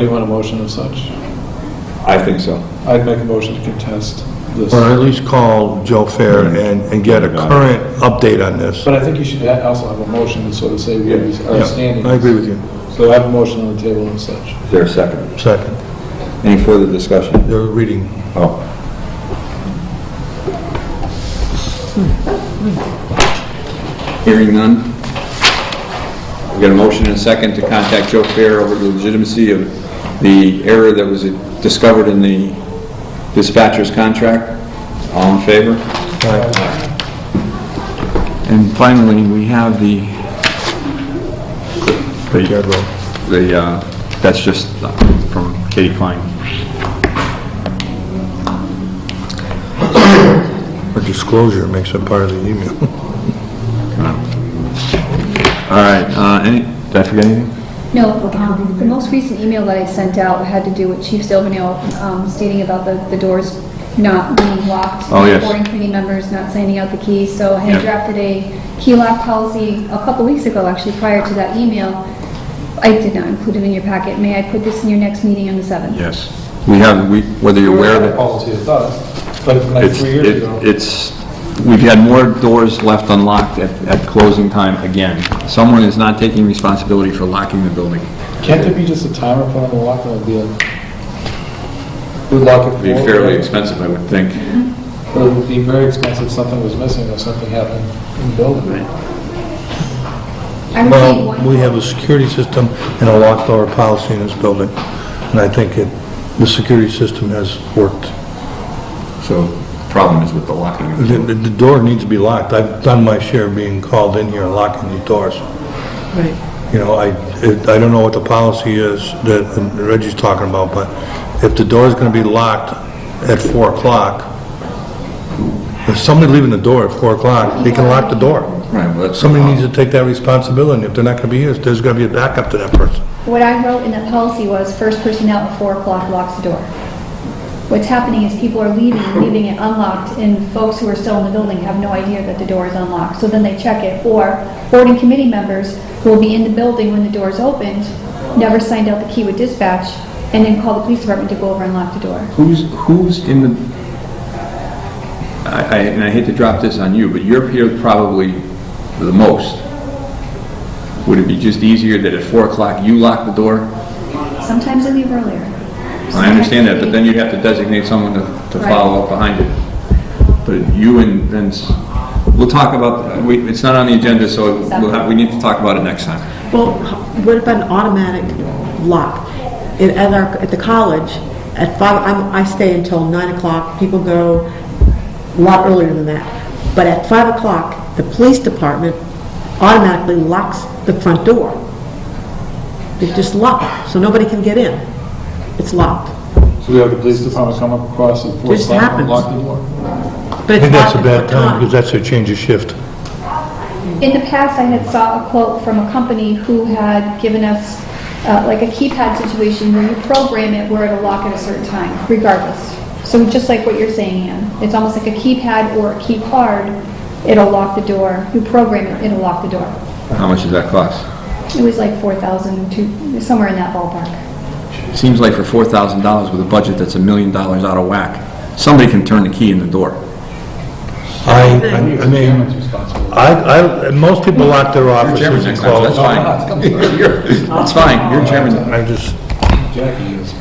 Do you want a motion of such? I think so. I'd make a motion to contest this. Or at least call Joe Fair and, and get a current update on this. But I think you should ha- also have a motion to sort of say where we are standing. Yeah, I agree with you. So I have a motion on the table and such. Is there a second? Second, Any further discussion? they're reading. Oh. Hearing none. We got a motion and a second to contact Joe Fair over the legitimacy of the error that was discovered in the dispatcher's contract. All in favor? And finally, we have the, Jared Rowe. the, uh, that's just from Katie Klein. Or disclosure makes it part of the email. All right, uh, any, did I forget anything? No, um, the most recent email that I sent out had to do with Chief Silvernail um, stating about the, the doors not being locked. Oh, yes. Boarding committee members not signing out the keys, so I Yep. had drafted a key lock policy a couple weeks ago, actually, prior to that email. I did not include it in your packet. May I put this in your next meeting on the 7th? Yes. We have, we, whether you're aware of it. Policy of thought, like from like It's, three years it- ago. it's, we've had more doors left unlocked at, at closing time again. Someone is not taking responsibility for locking the building. Can't it be just a timer put on the lock and it'll be a, we lock it for? Be fairly expensive, I would think. But It would be very expensive if something was missing or something happened in the building. I received Well, one. we have a security system and a locked door policy in this building, and I think it, the security system has worked. So, problem is with the locking. of the The, building. the the door needs to be locked. I've done my share of being called in here and locking these doors. Right. You know, I, it- I don't know what the policy is that Reggie's talking about, but if the door's gonna be locked at four o'clock, if somebody leaving the door at four o'clock, they can lock the door. Right, uh, well, that's. Somebody needs to take that responsibility. If they're not gonna be here, there's gonna be a backup to that person. What I wrote in the policy was, first person out at 4 o'clock locks the door. What's happening is people are leaving, leaving it unlocked, and folks who are still in the building have no idea that the door is unlocked, so then they check it. Or boarding committee members who will be in the building when the door is opened, never signed out the key with dispatch, and then call the police department to go over and lock the door. Who's, who's in the, I, I- and I hate to drop this on you, but you're here probably the most. Would it be just easier that at 4 o'clock you lock the door? Sometimes they leave earlier. I understand that, but then you'd have to designate someone to, to Right. follow up behind it. But you and, and, s- we'll talk about, we, it's not on the agenda, so we'll have, we need to talk about it next time. Well, what about an automatic lock? At at our, at the college, at five, I'm, I stay until nine o'clock, people go a lot earlier than that. But at five o'clock, the police department automatically locks the front door. It's just locked, so nobody can get in. It's locked. So we have the police department come across at four Just o'clock and happens. lock the door. But I it's think that's a locked at bad the time, because that's a change of shift. In the past, I had saw a quote from a company who had given us uh, like a keypad situation where you program it where it'll lock at a certain time, regardless. So just like what you're saying, Ann, it's almost like a keypad or a key card, it'll lock the door. You program it, it'll lock the door. How much does that cost? It was like 4,000 to, somewhere in that ballpark. Seems like for four thousand dollars with a budget that's a million dollars out of whack, somebody can turn the key in the door. I, I I mean, I, I, and most people lock their offices and Next time, close. That's fine. You're- That's fine, you're chairman. I just, Jackie is.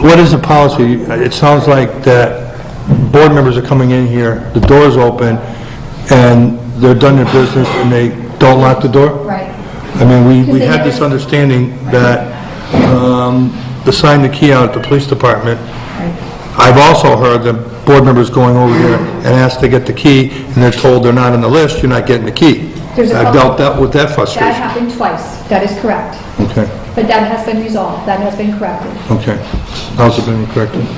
what is the policy? It sounds like that board members are coming in here, the door's open, and they're done their business, and they don't lock the door? Right. I mean, we, we Because they had this never- understanding that, um, the sign the key out at the police department. I've also heard the board members going over here and asked to get the key, and they're told they're not on the list, you're not getting the key. There's a I've couple- dealt that with that That frustration. happened twice. That is correct. Okay, But that has been resolved. That has been corrected. okay. How's it been corrected? We're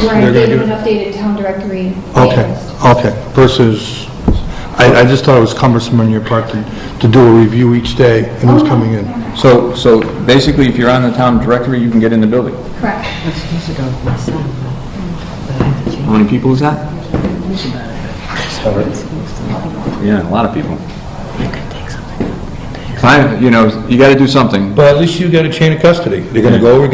They're gonna engaged do in an it. updated town directory. Okay, list. okay, versus, I, I just thought it was cumbersome on your part to, to do a review each day and who's coming in. So, so basically, if you're on the town directory, you can get in the building. Correct. How many people is that? Yeah, a lot of people. Fine, you know, you gotta do something. But at least you got a chain of custody. They're gonna go over,